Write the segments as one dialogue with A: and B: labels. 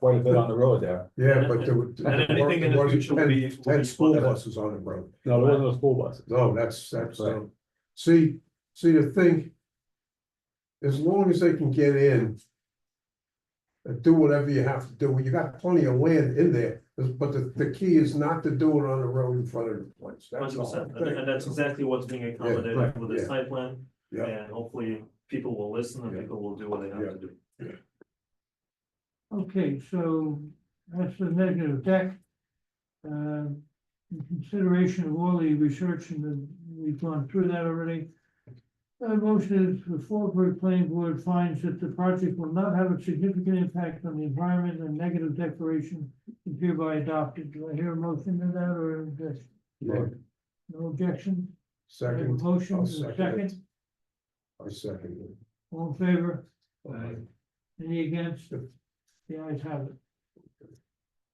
A: quite a bit on the road there.
B: Yeah, but there were.
C: And anything in the
B: there was
C: future will be- will
B: 10
C: be
B: Ten school
C: funded.
B: buses on the road.
A: No, there wasn't no school buses.
B: No, that's, that's, uh,
A: Right.
B: see, see the thing. As long as they can get in. And do whatever you have to do, you got plenty of land in there, but the, the key is not to do it on the road in front of the place. That's
C: Hundred
B: all.
C: percent, and and that's exactly what's being
B: right,
C: accommodated with
B: yeah.
C: this site plan.
B: Yeah.
C: And hopefully people will listen and
B: Yeah.
C: people will do what they have
B: Yeah.
C: to do.
D: Okay, so that's the negative deck. Um, in consideration of all the research and the- we've gone through that already. Uh, motion is the Fallbrook Planning Board finds that the project will not have a significant impact on the environment and negative declaration is hereby adopted. Do I hear a motion to that or an objection?
B: Yeah,
D: no objection? I have a
B: Second,
D: Motion,
B: I'll
D: and a
B: second it.
D: second,
B: I second.
D: all in favor?
B: it.
D: Any against? The ayes have it.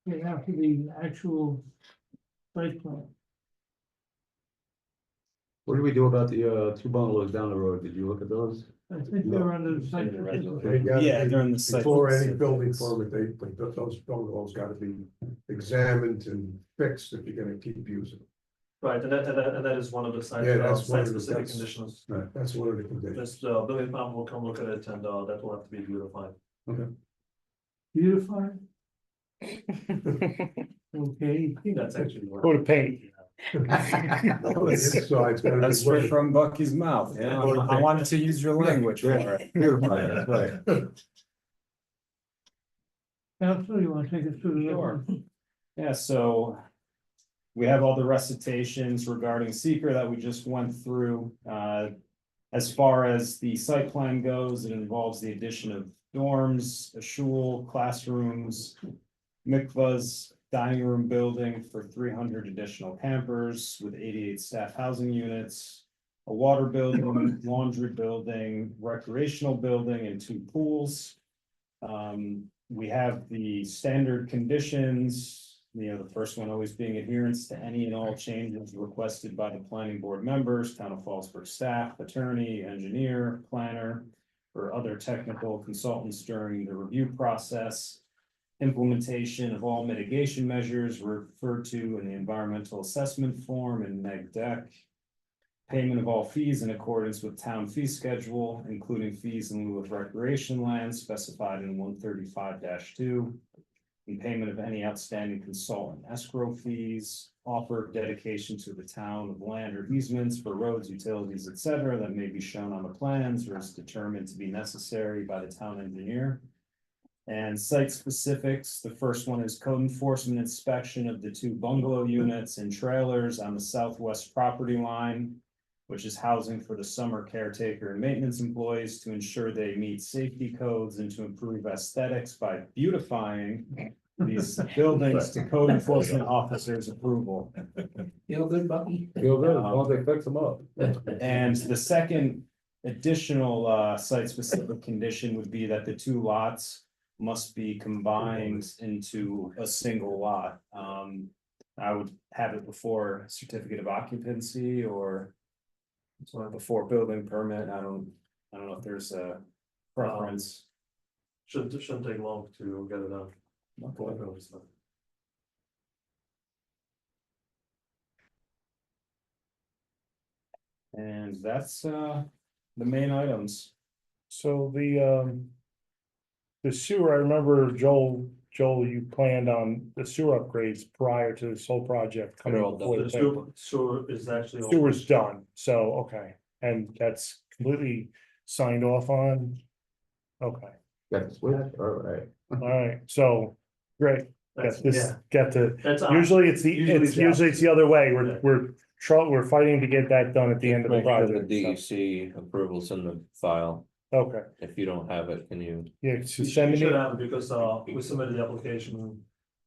D: Okay, now to the actual site plan.
A: What did we do about the uh two bungalows down the road? Did you look at those?
D: I think they're under the site.
B: They
D: plan.
B: gotta
E: Yeah,
B: be-
E: during the site.
B: Before any building permit, they, but th- those bungalows gotta be examined and fixed if you're gonna keep using. them.
C: Right, and that, and that, and that is one of the site,
B: Yeah,
C: uh,
B: that's one
C: site
B: of the-
C: specific
B: that's-
C: conditions.
B: That's one of the conditions.
C: This, uh, building department will come look at it and, uh, that will have to be beautified.
D: Beautified? Okay,
C: I think that's actually. what-
E: Coat of paint. That's
B: Inside's gotta be
E: straight
B: working.
E: from Bucky's mouth, you know, I wanted to use your language for it.
A: Beautiful, that's right.
D: council, you wanna take us through the?
E: Sure. Yeah, so. We have all the recitations regarding seeker that we just went through, Uh, As far as the site plan goes, it involves the addition of dorms, a shul, classrooms. Mikvahs, dining room building for three hundred additional campers with eighty-eight staff housing units. A water building, laundry building, recreational building and two pools. Um, we have the standard conditions, you know, the first one always being adherence to any and all changes requested by the planning board members, town of Fallsburg staff, attorney, engineer, planner. Or other technical consultants during the review process. Implementation of all mitigation measures referred to in the environmental assessment form and E neg deck. Payment of all fees in accordance with town fee schedule, including fees in lieu of recreation land specified in one thirty-five two. And payment of any outstanding consultant escrow fees, offer of dedication to the town of land or easements for roads, utilities, et cetera, That may be shown on the plans or is determined to be necessary by the town engineer. And site specifics, the first one is code enforcement inspection of the two bungalow units and trailers on the southwest property line which is housing for the summer caretaker and maintenance employees to ensure they meet safety codes and to improve aesthetics by beautifying these buildings to code enforcement officers' approval.
D: Feel good, Bucky?
A: Feel good, as long as they fix them up.
E: And the second additional uh site specific condition would be that the two lots must be combined into a single lot. Um, I would have it before certificate of occupancy or before building permit. I don't, I don't know if there's a preference.
C: Shouldn't, shouldn't take long to get it done. uh, Hopefully it's done.
E: And that's uh the main items.
F: So the um. The sewer, I remember Joel, Joel, you planned on the sewer upgrades prior to this whole project coming.
E: all done.
F: before the
C: The
F: thing.
C: sewer, sewer is actually. all-
F: Sewer's done, so, okay, and that's completely signed off on. Okay,
A: That's weird, all right.
F: alright, so, great,
C: Uh-huh. That's,
F: got this,
C: yeah,
F: got the,
C: that's. uh, on.
F: usually it's the,
C: Usually it's
F: it's
C: the
F: usually it's the other way,
C: Yeah.
F: we're, we're. Try, we're fighting to get that done at the end of the
G: Make sure
F: project,
G: The
F: so-
G: DEC approvals in the file,
F: okay,
G: if you don't have it, can you,
F: yeah, so
C: You
F: send
C: should- you
F: me.
C: should have, it because, uh, we submitted the application,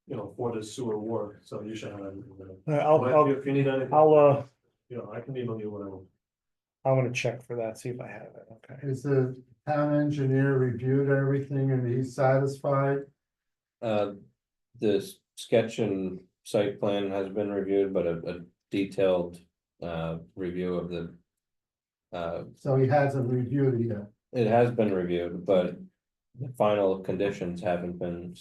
C: you know, for the sewer work, so you should have everything. there.
F: Uh, I'll,
C: But
F: I'll,
C: if you need anything,
F: I'll, uh,
C: you know, I can email you whatever.
F: I'm gonna check for that, see if I have it, okay.
H: Is the town engineer reviewed everything and he's satisfied?
G: uh, this sketch and site plan has been reviewed, but a, a detailed, uh, review of the. Uh,
H: So he hasn't reviewed it yet.
G: it has been reviewed, but the final conditions haven't been